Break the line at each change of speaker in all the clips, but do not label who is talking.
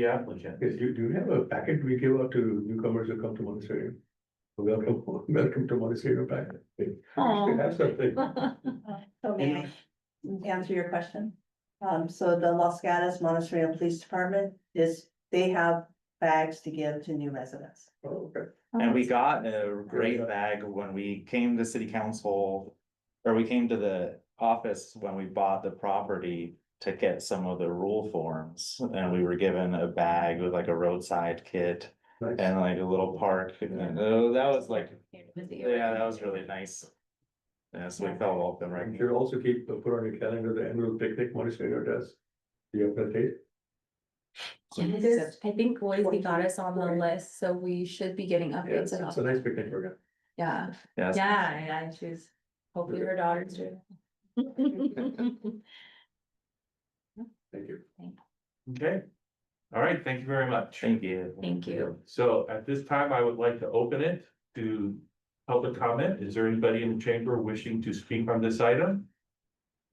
the applicant.
Yes, do, do you have a packet we give out to newcomers who come to Monastery? Welcome, welcome to Monastery packet. We
Aw.
should have something.
So may I answer your question? Um, so the Los Gatos Montessori Police Department is, they have bags to give to new residents.
Oh, Okay.
And we got a great bag when we came to city council. Or we came to the office when we bought the property to get some of the rule forms. And we were given a bag with like a roadside kit
Nice.
and like a little park. And uh, that was like, yeah,
Yeah,
that was really nice. Yeah, so we felt welcome,
And
right?
you also keep, uh, put on your calendar the annual picnic Monastery does. Do you have that date?
Yes, I think Boise got us on the list, so we should be getting
Yeah,
updates
it's
about,
it's a nice picnic program.
yeah,
Yes.
yeah, and she's, hopefully her daughter's doing.
Thank you.
Okay. All right, thank you very much.
Thank you.
Thank you.
So at this time, I would like to open it to public comment. Is there anybody in the chamber wishing to speak on this item?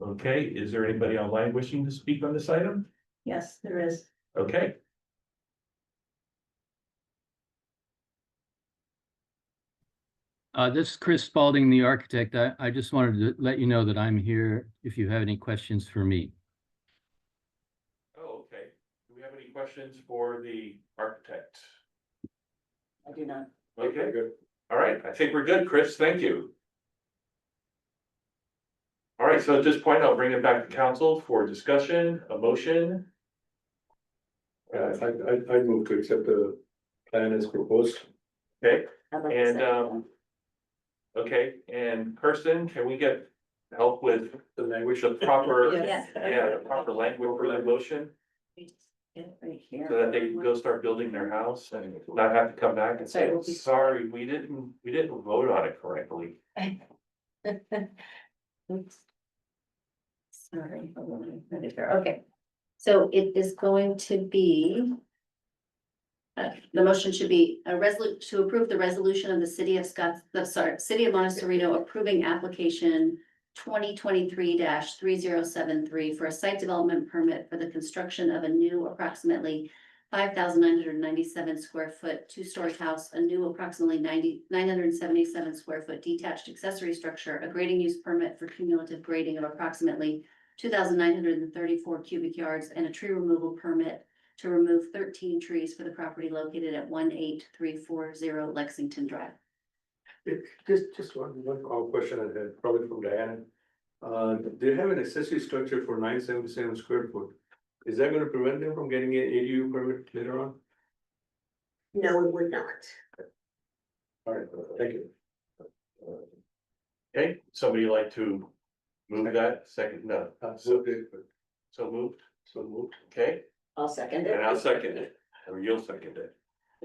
Okay, is there anybody online wishing to speak on this item?
Yes, there is.
Okay,
Uh, this is Chris Spalding, the architect. I, I just wanted to let you know that I'm here if you have any questions for me.
oh, okay. Do we have any questions for the architect?
I do not.
Okay, good. All right, I think we're good, Chris. Thank you. All right, so at this point, I'll bring it back to council for discussion, a motion.
Yeah, I, I, I'd move to accept the plan as proposed.
Okay, And, um. Okay, and Kirsten, can we get help with
The
language of proper,
Yes.
yeah, the proper language for that motion? So that they can go start building their house and not have to come back and say, sorry, we didn't, we didn't vote on it correctly.
Sorry.
Okay, so it is going to be. uh, the motion should be a resolu- to approve the resolution of the city of Scotts, the sorry, city of Montecito approving application. Twenty twenty-three three zero seven three for a site development permit for the construction of a new approximately. Five thousand nine hundred ninety-seven square foot two-story house, a new approximately 90 977 square foot detached accessory structure. A grading use permit for cumulative grading of approximately two thousand nine hundred and thirty-four cubic yards and a tree removal permit to remove thirteen trees for the property located at one eight three four zero Lexington Drive.
Just, just one, one quick question I had, probably from Diana. Uh, they have an accessory structure for nine seventy-seven square foot. Is that gonna prevent them from getting an ADU permit later on?
No, it would not.
All right, thank you.
Okay, somebody like to move that second, no,
Uh, so they-
so moved,
so moved.
okay?
I'll second it.
And I'll second it, or you'll second it.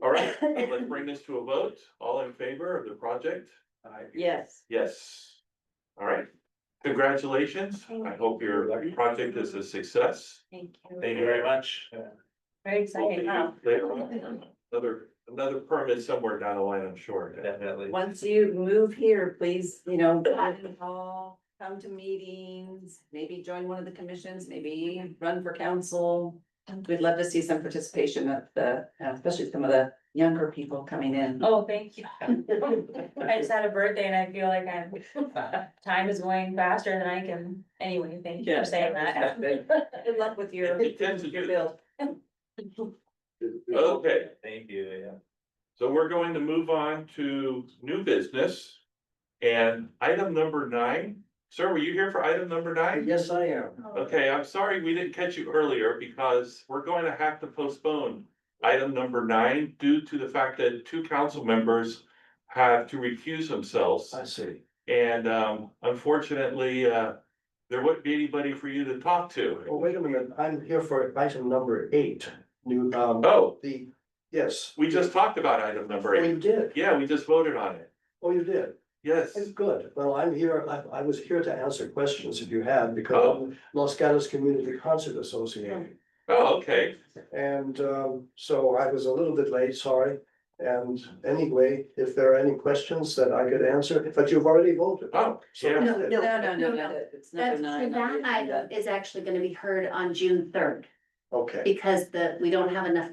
All right, let's bring this to a vote. All in favor of the project?
Yes.
Yes. All right. Congratulations. I hope your project is a success.
Thank
Thank you very much.
Very
We'll see
exciting, huh?
you Later on, another, another permit somewhere down the line, I'm sure.
Definitely.
Once you move here, please, you know, come to the hall, come to meetings, maybe join one of the commissions, maybe run for council. We'd love to see some participation of the, uh, especially some of the younger people coming in.
Oh, thank you. I just had a birthday and I feel like I'm, time is going faster than I can, anyway, thank you for saying that.
Good luck with your,
It tends to do
your
that.
build.
Okay,
Thank you, yeah.
so we're going to move on to new business. And item number nine, sir, were you here for item number nine?
Yes, I am.
Okay, I'm sorry we didn't catch you earlier because we're going to have to postpone item number nine due to the fact that two council members have to recuse themselves.
see.
And um, unfortunately, uh, there wouldn't be anybody for you to talk
Well,
to.
wait a minute, I'm here for item number eight, new, um,
Oh,
the, yes.
we just talked about item number
Oh, you
eight.
did,
Yeah, we just voted on it.
oh, you did,
Yes.
good, well, I'm here, I, I was here to answer questions if you had, because I'm Los Gatos Community Concert Association.
Oh, okay.
And, um, so I was a little bit late, sorry, and anyway, if there are any questions that I could answer, but you've already voted.
Oh,
So
yeah.
that's it.
No, no, no, no, it's number
That's-
nine.
That item is actually gonna be heard on June third,
Okay.
because the, we don't have enough